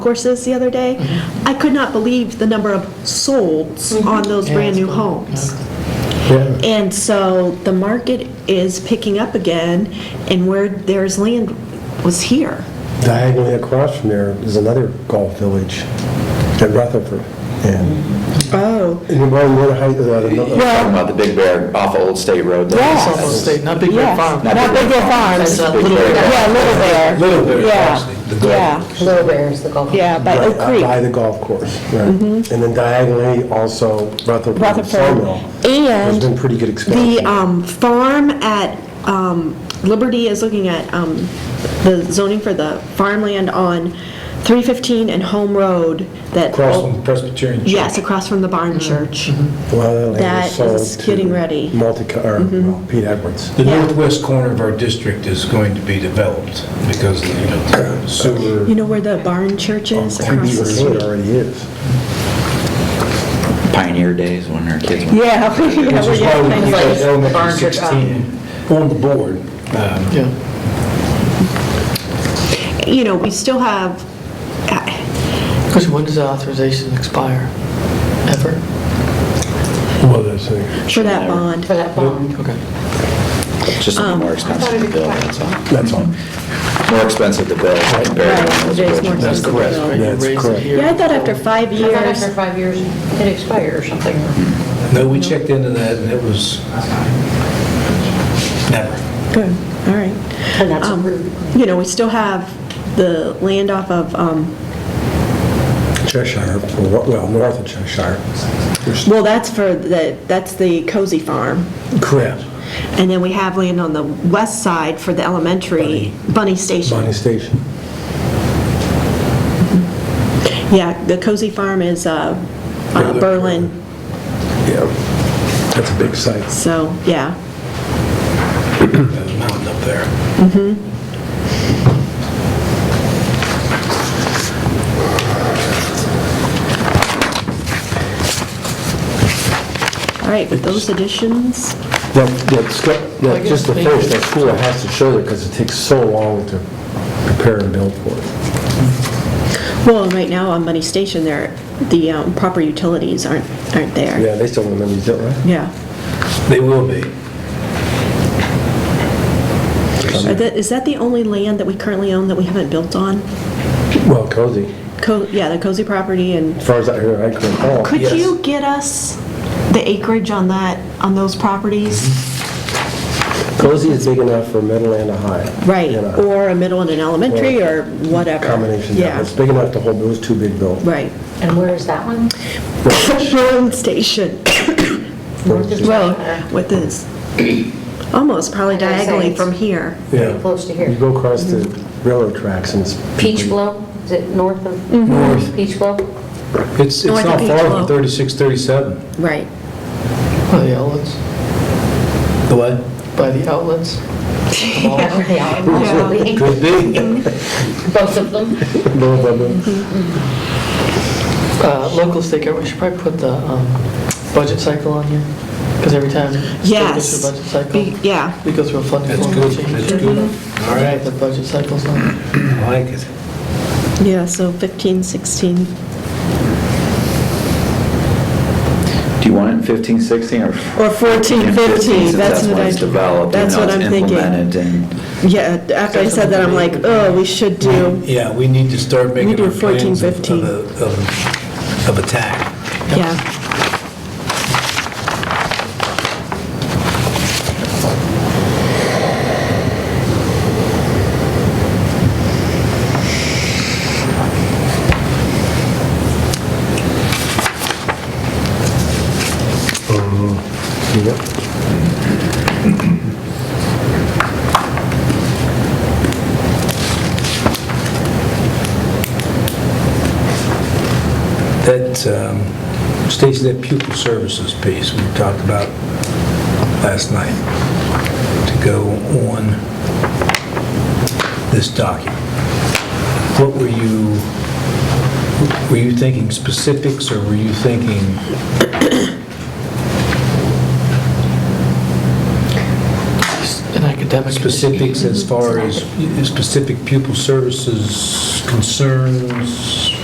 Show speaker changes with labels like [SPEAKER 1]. [SPEAKER 1] courses the other day, I could not believe the number of solds on those brand-new homes.
[SPEAKER 2] Yeah,
[SPEAKER 1] And so the market is picking up again, and where there's land was here.
[SPEAKER 2] diagonally across from there is another golf village in Rutherford. And
[SPEAKER 1] Oh.
[SPEAKER 2] and you're on one height, uh, another-
[SPEAKER 3] Talking about the Big Bear off of Old State Road. there.
[SPEAKER 4] Yes.
[SPEAKER 3] That's-
[SPEAKER 4] Old State, not Big Bear
[SPEAKER 3] Yes,
[SPEAKER 4] Farm.
[SPEAKER 3] Not Big Bear Farm.
[SPEAKER 4] That's a
[SPEAKER 3] Big
[SPEAKER 4] Little
[SPEAKER 3] Bear.
[SPEAKER 4] Bear.
[SPEAKER 5] Yeah, Little Bear.
[SPEAKER 2] Little Bear,
[SPEAKER 5] Yeah, yeah,
[SPEAKER 6] Little Bear is the golf.
[SPEAKER 5] yeah, by
[SPEAKER 2] right,
[SPEAKER 5] Oak
[SPEAKER 2] uh,
[SPEAKER 5] Creek,
[SPEAKER 2] by the golf course. right. And then diagonally also Rutherford Sawmill.
[SPEAKER 5] Rutherford.
[SPEAKER 2] There's been
[SPEAKER 5] And
[SPEAKER 2] pretty good
[SPEAKER 1] The
[SPEAKER 2] expansion.
[SPEAKER 1] um, farm at um, Liberty is looking at um, the zoning for the farmland on 315 and Home Road that...
[SPEAKER 7] Across from Presbyterian Church.
[SPEAKER 1] Yes, across from the barn church.
[SPEAKER 2] Well,
[SPEAKER 1] that
[SPEAKER 2] was sold
[SPEAKER 1] is getting
[SPEAKER 2] to
[SPEAKER 1] ready.
[SPEAKER 2] Multi, or well, Pete Edwards.
[SPEAKER 7] The
[SPEAKER 1] Yeah.
[SPEAKER 7] northwest corner of our district is going to be developed because, you know, sewer.
[SPEAKER 1] You know where the barn church is? Across the
[SPEAKER 2] Oh, Beaver
[SPEAKER 1] street.
[SPEAKER 2] Road already is.
[SPEAKER 3] Pioneer days when our kids went.
[SPEAKER 5] yeah.
[SPEAKER 7] Which is why we keep
[SPEAKER 6] Like
[SPEAKER 7] that elementary
[SPEAKER 6] barn church up.
[SPEAKER 7] 16 on the board. Um,
[SPEAKER 1] you know, we still have, uh,
[SPEAKER 4] Because when does the authorization expire? Ever?
[SPEAKER 2] Well, that's it.
[SPEAKER 1] for that bond,
[SPEAKER 6] For that bond.
[SPEAKER 4] Okay.
[SPEAKER 3] It's Just
[SPEAKER 5] um,
[SPEAKER 3] something more expensive to build, that's all.
[SPEAKER 2] That's all.
[SPEAKER 3] More expensive to build compared to when it
[SPEAKER 1] Right,
[SPEAKER 3] was
[SPEAKER 1] it is more
[SPEAKER 3] originally.
[SPEAKER 1] expensive.
[SPEAKER 4] That's
[SPEAKER 1] That's
[SPEAKER 4] correct.
[SPEAKER 1] correct.
[SPEAKER 2] That's correct.
[SPEAKER 1] yeah, I thought after five
[SPEAKER 6] I thought
[SPEAKER 1] years,
[SPEAKER 6] after five years, it expired or something.
[SPEAKER 7] No, we checked into that and it was never.
[SPEAKER 1] good, all right.
[SPEAKER 6] And that's
[SPEAKER 1] Um,
[SPEAKER 6] approved.
[SPEAKER 1] You know, we still have the land off of, um,
[SPEAKER 2] Cheshire, well, well, north of Cheshire. There's-
[SPEAKER 1] well, that's for the, that's the cozy farm.
[SPEAKER 2] Correct.
[SPEAKER 1] And then we have land on the west side for the elementary bunny
[SPEAKER 2] Bonnie
[SPEAKER 1] station.
[SPEAKER 2] Station.
[SPEAKER 1] Yeah, the cozy farm is uh, uh, Berlin,
[SPEAKER 2] Yeah, that's a big site.
[SPEAKER 1] so, yeah.
[SPEAKER 7] There's a mountain up there.
[SPEAKER 1] All right, with those additions,
[SPEAKER 2] That, that, sc-
[SPEAKER 4] I
[SPEAKER 2] that,
[SPEAKER 4] guess
[SPEAKER 2] just to
[SPEAKER 4] maybe-
[SPEAKER 2] finish, that school has to show there because it takes so long to prepare and build for it.
[SPEAKER 1] well, right now on bunny station, there, the um, proper utilities aren't, aren't there.
[SPEAKER 2] Yeah, they still don't remember, don't they?
[SPEAKER 1] Yeah.
[SPEAKER 7] They will be.
[SPEAKER 1] Are that- Is that the only land that we currently own that we haven't built on?
[SPEAKER 2] Well, cozy,
[SPEAKER 1] Co- Yeah, the cozy property and,
[SPEAKER 2] as far as I hear, I can recall.
[SPEAKER 1] could
[SPEAKER 7] Yes.
[SPEAKER 1] you get us the acreage on that, on those properties?
[SPEAKER 2] Cozy is big enough for middle and a high.
[SPEAKER 1] Right,
[SPEAKER 2] You know,
[SPEAKER 1] or a middle and an elementary or whatever.
[SPEAKER 2] Combination, yeah,
[SPEAKER 1] Yeah,
[SPEAKER 2] it's big enough to hold those two big buildings.
[SPEAKER 1] right.
[SPEAKER 6] And where is that one?
[SPEAKER 1] Road station,
[SPEAKER 6] North is
[SPEAKER 1] well,
[SPEAKER 6] better.
[SPEAKER 1] with this, almost probably
[SPEAKER 6] Like I say,
[SPEAKER 1] diagonally
[SPEAKER 6] it's-
[SPEAKER 1] from here.
[SPEAKER 2] Yeah.
[SPEAKER 6] Close to here.
[SPEAKER 2] You go across the
[SPEAKER 1] Mm-hmm.
[SPEAKER 2] railroad tracks and it's.
[SPEAKER 6] Peach Blow, is it north of?
[SPEAKER 7] North.
[SPEAKER 6] Peach Blow?
[SPEAKER 7] It's, it's
[SPEAKER 1] North
[SPEAKER 7] not
[SPEAKER 1] of
[SPEAKER 7] far
[SPEAKER 1] Beechlow.
[SPEAKER 7] from 36, 37.
[SPEAKER 1] Right.
[SPEAKER 4] By the outlets?
[SPEAKER 7] The what?
[SPEAKER 4] By the outlets?
[SPEAKER 6] Yeah, they are. Possibly.
[SPEAKER 7] Could be.
[SPEAKER 6] Both of them.
[SPEAKER 2] Blah, blah, blah.
[SPEAKER 4] Uh, Local state government, we should probably put the um, budget cycle on here, because every time. state goes
[SPEAKER 1] Yes.
[SPEAKER 4] through a budget cycle,
[SPEAKER 1] Be-
[SPEAKER 2] um,
[SPEAKER 1] Yeah,
[SPEAKER 4] We go through a funding
[SPEAKER 7] That's
[SPEAKER 4] formula
[SPEAKER 7] good,
[SPEAKER 4] change. Mm-hmm.
[SPEAKER 7] that's good. All
[SPEAKER 4] Right,
[SPEAKER 7] right,
[SPEAKER 4] the budget cycle's on.
[SPEAKER 7] I like it.
[SPEAKER 1] yeah, so 15, 16.
[SPEAKER 3] Do you want it in 15, 16 or?
[SPEAKER 5] Or 14,
[SPEAKER 3] in
[SPEAKER 5] 15,
[SPEAKER 3] since
[SPEAKER 5] that's what
[SPEAKER 3] when
[SPEAKER 5] I,
[SPEAKER 3] it's developed and
[SPEAKER 5] that's
[SPEAKER 3] now
[SPEAKER 5] what
[SPEAKER 3] it's
[SPEAKER 5] I'm thinking.
[SPEAKER 3] implemented and-
[SPEAKER 5] Yeah, after I said that, I'm like, oh, we should do,
[SPEAKER 7] Yeah, we need to start making
[SPEAKER 5] do
[SPEAKER 7] our plans
[SPEAKER 5] 14,
[SPEAKER 7] of,
[SPEAKER 5] 15.
[SPEAKER 7] of, of- of attack.
[SPEAKER 1] Yeah,
[SPEAKER 2] Yep.
[SPEAKER 7] That, um, Stacy, that pupil services piece we talked about last night, to go on this document. What were you, were you thinking specifics, or were you thinking,
[SPEAKER 4] And I could academic.
[SPEAKER 7] specifics as far as specific pupil services concerns,